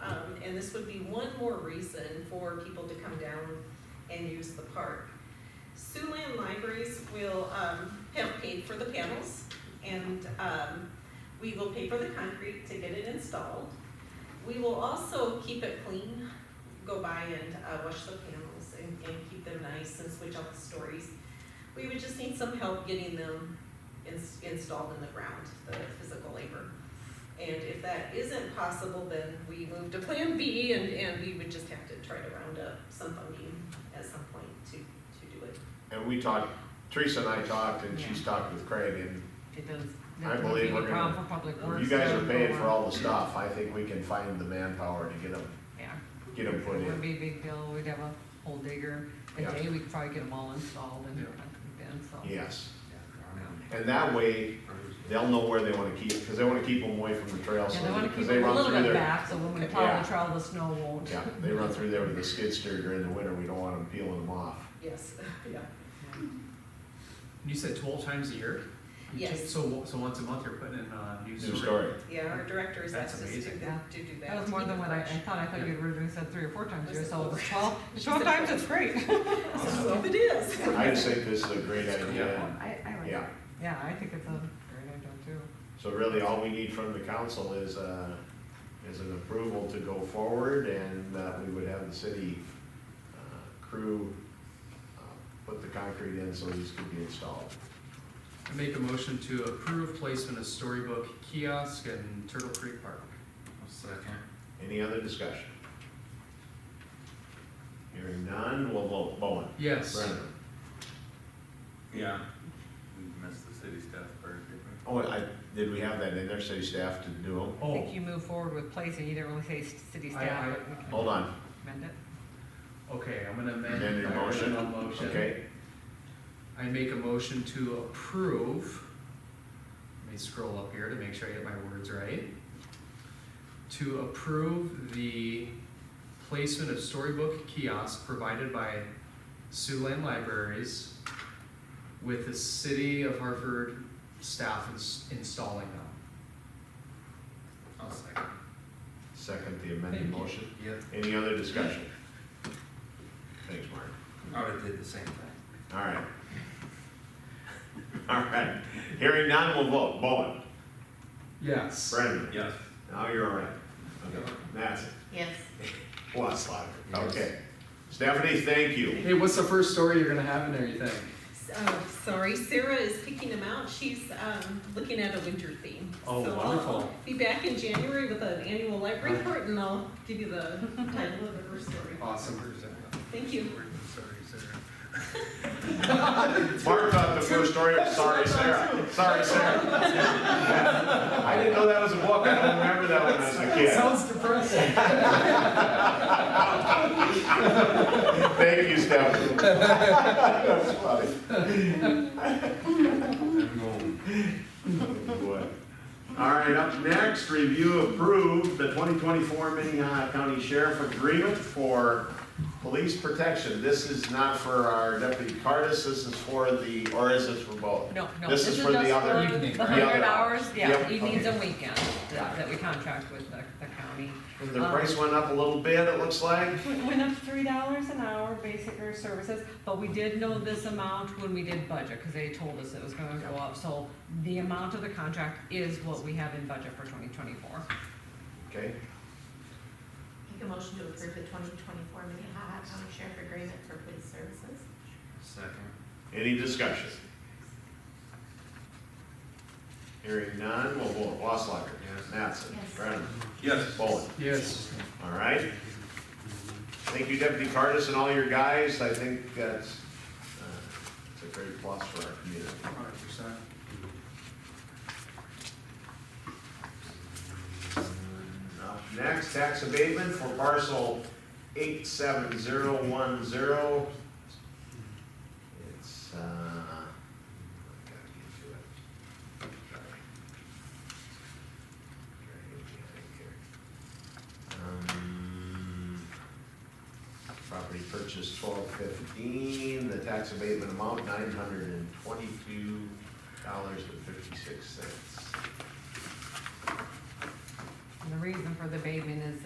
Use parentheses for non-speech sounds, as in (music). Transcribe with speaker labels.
Speaker 1: Um, this would be one more reason for people to come down and use the park. Siouxland Libraries will, um, have paid for the panels, and, um, we will pay for the concrete to get it installed. We will also keep it clean, go by and, uh, wash the panels and, and keep them nice and switch out the stories. We would just need some help getting them ins- installed in the ground, the physical labor. And if that isn't possible, then we move to plan B and, and we would just have to try to round up some funding at some point to, to do it.
Speaker 2: And we talked, Teresa and I talked, and she's talked with Craig, and
Speaker 3: It does.
Speaker 2: I believe we're gonna-
Speaker 3: For public
Speaker 2: if
Speaker 3: works.
Speaker 2: you guys
Speaker 3: though,
Speaker 2: are paying for
Speaker 3: or-
Speaker 2: all the stuff, I think we can find the manpower to get them,
Speaker 3: Yeah,
Speaker 2: get them put
Speaker 3: it wouldn't
Speaker 2: in.
Speaker 3: be a big deal, we'd have a hole digger, a
Speaker 2: Yeah.
Speaker 3: day, we'd probably get them all installed and
Speaker 4: Yeah.
Speaker 3: everything, so.
Speaker 2: Yes,
Speaker 3: Yeah.
Speaker 2: and that way, they'll know where they wanna keep, because they wanna keep them away from the trail,
Speaker 3: And they
Speaker 2: so,
Speaker 3: wanna
Speaker 2: because
Speaker 3: keep
Speaker 2: they
Speaker 3: it a
Speaker 2: run
Speaker 3: little
Speaker 2: through
Speaker 3: bit
Speaker 2: there.
Speaker 3: back, so when we
Speaker 2: Yeah.
Speaker 3: plow the trail, the snow won't.
Speaker 2: Yeah, they run through there with the skid steer during the winter, we don't want them peeling them off.
Speaker 3: (laughs)
Speaker 1: Yes, yeah.
Speaker 4: You said twelve times a year? You
Speaker 1: Yes.
Speaker 4: take- So, so once a month you're putting in a new
Speaker 2: New
Speaker 4: story?
Speaker 2: story.
Speaker 1: Yeah, our directors
Speaker 4: That's
Speaker 1: asked us to do
Speaker 4: amazing.
Speaker 1: that, to do that.
Speaker 3: (laughs) That was more than what I, I thought, I thought you originally said three or four times a year, so it was twelve,
Speaker 1: She said
Speaker 3: twelve times, (laughs) it's great.
Speaker 1: So it is. (laughs)
Speaker 2: I just think this is a great idea,
Speaker 3: (laughs) I, I
Speaker 2: and,
Speaker 3: like
Speaker 2: yeah.
Speaker 3: it. Yeah, I think it's a great idea too.
Speaker 2: So really, all we need from the council is, uh, is an approval to go forward, and uh, we would have the city uh, crew uh, put the concrete in so these could be installed.
Speaker 4: I make a motion to approve placement of storybook kiosk in Turtle Creek Park. Second.
Speaker 2: Any other discussion? Hearing none, we'll vote. Bowen?
Speaker 4: Yes.
Speaker 2: Brenneman?
Speaker 5: Yeah. Missed the city staff part, didn't we?
Speaker 2: Oh, I, did we have that in there, city staff to do them?
Speaker 3: I
Speaker 4: Oh,
Speaker 3: think you move forward with placing, you didn't really say s- city
Speaker 4: I- I-
Speaker 3: staff, but we can
Speaker 2: Hold on,
Speaker 3: amend it.
Speaker 4: okay, I'm gonna amend.
Speaker 2: Amend your
Speaker 4: my
Speaker 2: motion.
Speaker 4: original motion.
Speaker 2: okay?
Speaker 4: I make a motion to approve, let me scroll up here to make sure I get my words right. To approve the placement of storybook kiosks provided by Siouxland Libraries with the city of Hartford staff ins- installing them. I'll second.
Speaker 2: Second the amended
Speaker 4: Thank you.
Speaker 2: motion.
Speaker 5: Yeah,
Speaker 2: Any other discussion? Thanks, Mark.
Speaker 5: I would've did the same thing.
Speaker 2: All right. All right. Hearing none, we'll vote. Bowen,
Speaker 4: Yes.
Speaker 2: Brenneman.
Speaker 5: Yes.
Speaker 2: Now you're all right. Okay. Mattson.
Speaker 1: Yes.
Speaker 2: Waslaw. Okay. Stephanie, thank you.
Speaker 4: Hey, what's the first story you're gonna have in there, you think?
Speaker 1: Oh, sorry, Sarah is picking them out, she's, um, looking at a winter theme.
Speaker 4: Oh,
Speaker 1: So I'll
Speaker 4: wonderful.
Speaker 1: Be back in January with an annual life report, and I'll give you the title of the first story.
Speaker 4: Awesome.
Speaker 1: Thank you.
Speaker 5: Sorry, Sarah.
Speaker 2: Mark thought the first story was (laughs) sorry, Sarah. Sorry, Sarah. (laughs) I didn't know that was a book. I don't remember that when I was a kid.
Speaker 4: Sounds depressing.
Speaker 2: Thank you, Stephanie. That's funny.
Speaker 5: I'm going.
Speaker 2: Boy. All right, up next, review approve the 2024 Minnehaha County Sheriff Agreement for Police Protection. This is not for our deputy Cardis, this is for the, or is this for both?
Speaker 3: No, no,
Speaker 2: This
Speaker 3: this
Speaker 2: is
Speaker 3: is
Speaker 2: for the
Speaker 3: just
Speaker 2: other
Speaker 3: for
Speaker 4: evening,
Speaker 3: the
Speaker 4: right?
Speaker 3: hundred
Speaker 2: The other
Speaker 3: hours,
Speaker 2: hours.
Speaker 3: yeah,
Speaker 2: Yep,
Speaker 3: evenings
Speaker 2: okay.
Speaker 3: and weekends
Speaker 2: Got it.
Speaker 3: that that we contract with the, the county.
Speaker 2: The price went up a little bit, it looks like.
Speaker 3: Went went up three dollars an hour, basic or services, but we did know this amount when we did budget, cause they told us it was gonna go up, so the amount of the contract is what we have in budget for twenty twenty-four.
Speaker 2: Okay,
Speaker 6: Make a motion to approve the twenty twenty-four Minnehaha County Sheriff Agreement for Police Services.
Speaker 5: Second.
Speaker 2: any discussion? Hearing none, we'll vote. Waslacher.
Speaker 5: Yes.
Speaker 2: Mattson.
Speaker 6: Yes.
Speaker 2: Brenneman.
Speaker 5: Yes.
Speaker 2: Bowen.
Speaker 4: Yes.
Speaker 2: All right. Thank you, Deputy Cardis and all your guys. I think that's, uh, it's a great plus for our community.
Speaker 4: Hundred percent.
Speaker 2: Up Uh, Next, tax abatement for parcel eight seven zero one zero. It's, uh, I gotta get to it. Sorry. Trying to get behind here. Um, Property purchase twelve fifteen, the tax abatement amount nine hundred and twenty-two dollars and fifty-six cents.
Speaker 3: And the reason for the abatement is